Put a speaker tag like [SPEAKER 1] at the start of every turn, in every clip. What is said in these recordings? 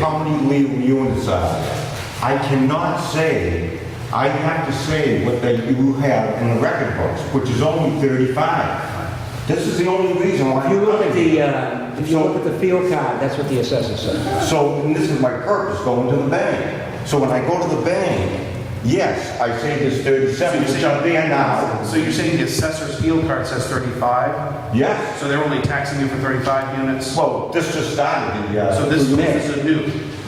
[SPEAKER 1] how many legal units are there. I cannot say, I have to say what they do have in the record books, which is only 35. This is the only reason why.
[SPEAKER 2] If you look at
[SPEAKER 1] I'm-
[SPEAKER 2] the, uh, if you look at the field card, that's what the assessor said.
[SPEAKER 1] So, and this is my purpose, going to the bank. So when I go to the bank, yes, I say there's 37,
[SPEAKER 3] you're
[SPEAKER 1] which
[SPEAKER 3] saying-
[SPEAKER 1] are there now.
[SPEAKER 3] So you're saying the assessor's field card says 35?
[SPEAKER 1] Yes,
[SPEAKER 3] So they're only taxing you for 35 units?
[SPEAKER 1] well, this just started, the,
[SPEAKER 3] So
[SPEAKER 1] uh,
[SPEAKER 3] this
[SPEAKER 2] May.
[SPEAKER 3] this is a new,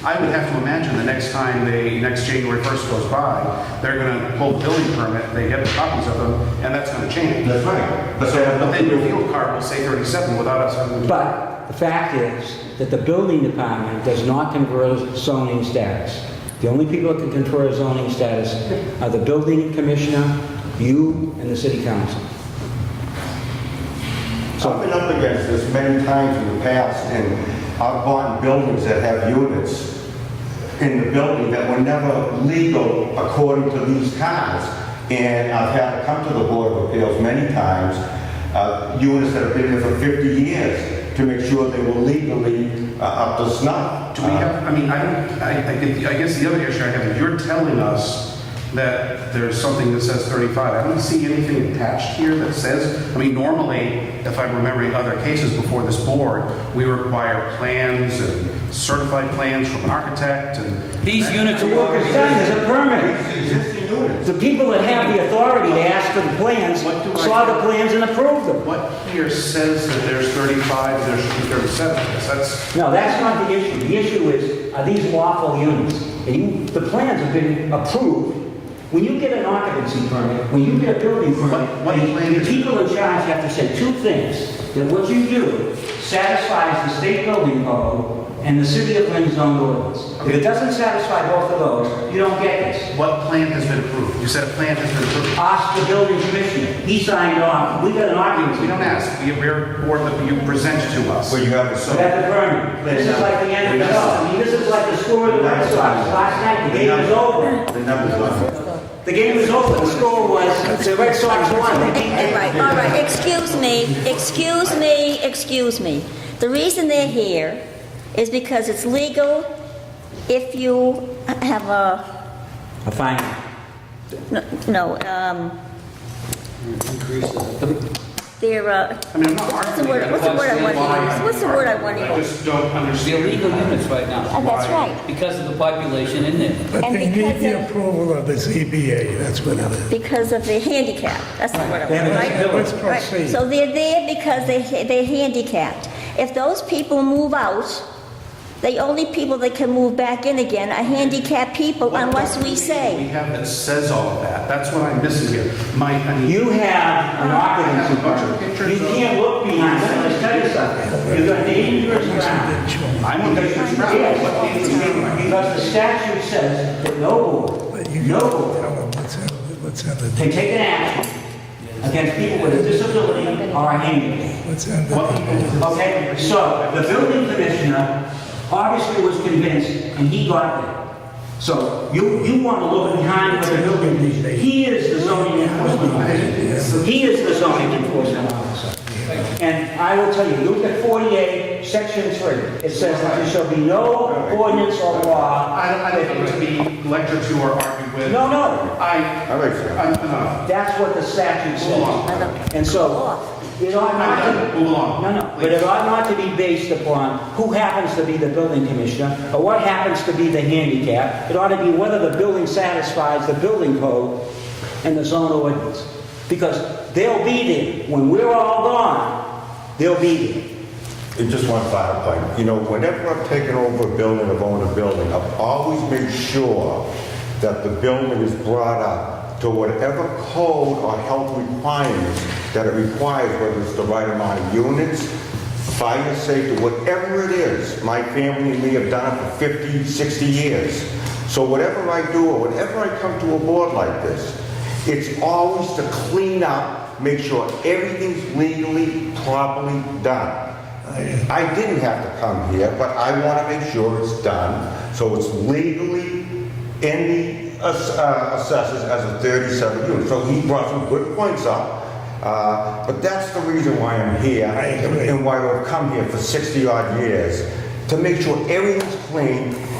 [SPEAKER 3] I would have to imagine the next time they, next January 1st goes by, they're going to pull the building permit, they get the copies of them, and that's going to change.
[SPEAKER 1] that's right. But they have
[SPEAKER 3] But
[SPEAKER 1] nothing
[SPEAKER 3] then
[SPEAKER 1] to
[SPEAKER 3] your
[SPEAKER 1] do.
[SPEAKER 3] field card will say 37 without us having to...
[SPEAKER 2] But the fact is that the building department does not confer zoning status. The only people that can confer zoning status are the building commissioner, you, and the city council.
[SPEAKER 1] So I've been up against this many times in the past, and I've bought buildings that have units in the building that were never legal according to these cards. And I've had to come to the Board of Appeals many times, uh, units that have been there for 50 years, to make sure they were legally uh, up to snuff.
[SPEAKER 3] Do we have, I mean, I don't, I, I get the- I guess the other issue I have is you're telling us that there's something that says 35. I don't see anything attached here that says, I mean, normally, if I'm remembering other cases before this board, we require plans and certified plans from an architect and.
[SPEAKER 4] These units
[SPEAKER 2] The
[SPEAKER 4] are
[SPEAKER 2] work is
[SPEAKER 4] already,
[SPEAKER 2] done, there's a permit.
[SPEAKER 1] These Existing units.
[SPEAKER 2] The people that have the authority to ask for the plans
[SPEAKER 3] What do I-
[SPEAKER 2] saw the plans and approved them.
[SPEAKER 3] What here says that there's 35, there should be 37? Because That's,
[SPEAKER 2] No, that's not the issue. The issue is, are these lawful units? And you, the plans have been approved. When you get an occupancy permit, when you get a building permit,
[SPEAKER 3] What- what plan
[SPEAKER 2] the
[SPEAKER 3] is it?
[SPEAKER 2] people in charge have to say two things. That what you do satisfies the state building code and the city of Lynn's own ordinance. If it doesn't satisfy both of those, you don't get this.
[SPEAKER 3] what plan has been approved? You said a plan has been approved.
[SPEAKER 2] Ask the building commissioner. He signed off. We got an occupancy.
[SPEAKER 3] We don't ask, we are board that you present to us.
[SPEAKER 1] Well, Uh, you have a
[SPEAKER 2] So that's a permit. This is like the end of the road. I mean, this is like the score of the Red Sox. Last night, the game was over.
[SPEAKER 1] The numbers on it.
[SPEAKER 2] The game was over. The score was, the Red Sox won. They beat them.
[SPEAKER 5] Right, all right, excuse me, excuse me, excuse me. The reason they're here is because it's legal if you have a,
[SPEAKER 2] A fine.
[SPEAKER 5] no, um, they're, uh,
[SPEAKER 3] I mean, I'm not
[SPEAKER 5] what's the
[SPEAKER 3] arguing.
[SPEAKER 5] word, what's the word I want to use? What's the word I want to
[SPEAKER 3] I
[SPEAKER 5] use?
[SPEAKER 3] just don't
[SPEAKER 4] the
[SPEAKER 3] understand.
[SPEAKER 4] illegal units right now
[SPEAKER 5] Uh, That's right,
[SPEAKER 4] because of the population in there.
[SPEAKER 5] And
[SPEAKER 6] But they need
[SPEAKER 5] because
[SPEAKER 6] the
[SPEAKER 5] of-
[SPEAKER 6] approval of the ZBA, that's what it is.
[SPEAKER 5] because of the handicap, that's the word I
[SPEAKER 2] They have
[SPEAKER 5] want,
[SPEAKER 2] a
[SPEAKER 5] right?
[SPEAKER 6] Let's
[SPEAKER 2] disability.
[SPEAKER 5] Right,
[SPEAKER 6] proceed.
[SPEAKER 5] so they're there because they, they're handicapped. If those people move out, the only people that can move back in again are handicapped people
[SPEAKER 3] What
[SPEAKER 5] unless we
[SPEAKER 3] document We
[SPEAKER 5] say.
[SPEAKER 3] have that says all of that. That's what I'm missing here. My, I mean,
[SPEAKER 2] You have an occupancy permit. You can't look behind. Let me tell you something. You're going to dangerous ground.
[SPEAKER 3] I'm a business travel. What do you mean by that?
[SPEAKER 2] Because the statute says that no board,
[SPEAKER 6] But you
[SPEAKER 2] no
[SPEAKER 6] gotta
[SPEAKER 2] board
[SPEAKER 6] tell them what's in, what's in
[SPEAKER 2] can
[SPEAKER 6] the,
[SPEAKER 2] take an action against people with a disability or a handicap.
[SPEAKER 6] what's in
[SPEAKER 3] What
[SPEAKER 6] the,
[SPEAKER 3] people-
[SPEAKER 2] Okay, so the building commissioner obviously was convinced, and he got there. So you, you want to look behind what the building commissioner, he is the zoning enforcement officer. He is the zoning enforcement officer. And I will tell you, look at 48, section 3. It says that there shall be no ordinance or law.
[SPEAKER 3] I, I don't want to be lectured to or argued with.
[SPEAKER 2] No, no,
[SPEAKER 3] I,
[SPEAKER 1] All right, sir.
[SPEAKER 3] I'm enough.
[SPEAKER 2] that's what the statute
[SPEAKER 3] Hold
[SPEAKER 2] says. And so, it ought
[SPEAKER 3] I'm
[SPEAKER 2] not to...
[SPEAKER 3] done. Move along.
[SPEAKER 2] No, no, but it ought not to be based upon who happens to be the building commissioner or what happens to be the handicap. It ought to be whether the building satisfies the building code and the zone ordinance. Because they'll be there. When we're all gone, they'll be there.
[SPEAKER 1] It just one final point. You know, whenever I've taken over a building, I've owned a building, I've always made sure that the building is brought up to whatever code or health requirements that it requires, whether it's the right amount of units, fire safety, whatever it is. My family and me have done it for 50, 60 years. So whatever I do, or whenever I come to a board like this, it's always to clean up, make sure everything's legally, properly done.
[SPEAKER 6] uh,
[SPEAKER 1] I didn't have to come here, but I want to make sure it's done, so it's legally in the ass- uh, assessors as a 37 unit. So he brought some good points up, uh, but that's the reason why I'm here.
[SPEAKER 6] I agree.
[SPEAKER 1] And why I've come here for 60-odd years, to make sure everything's complain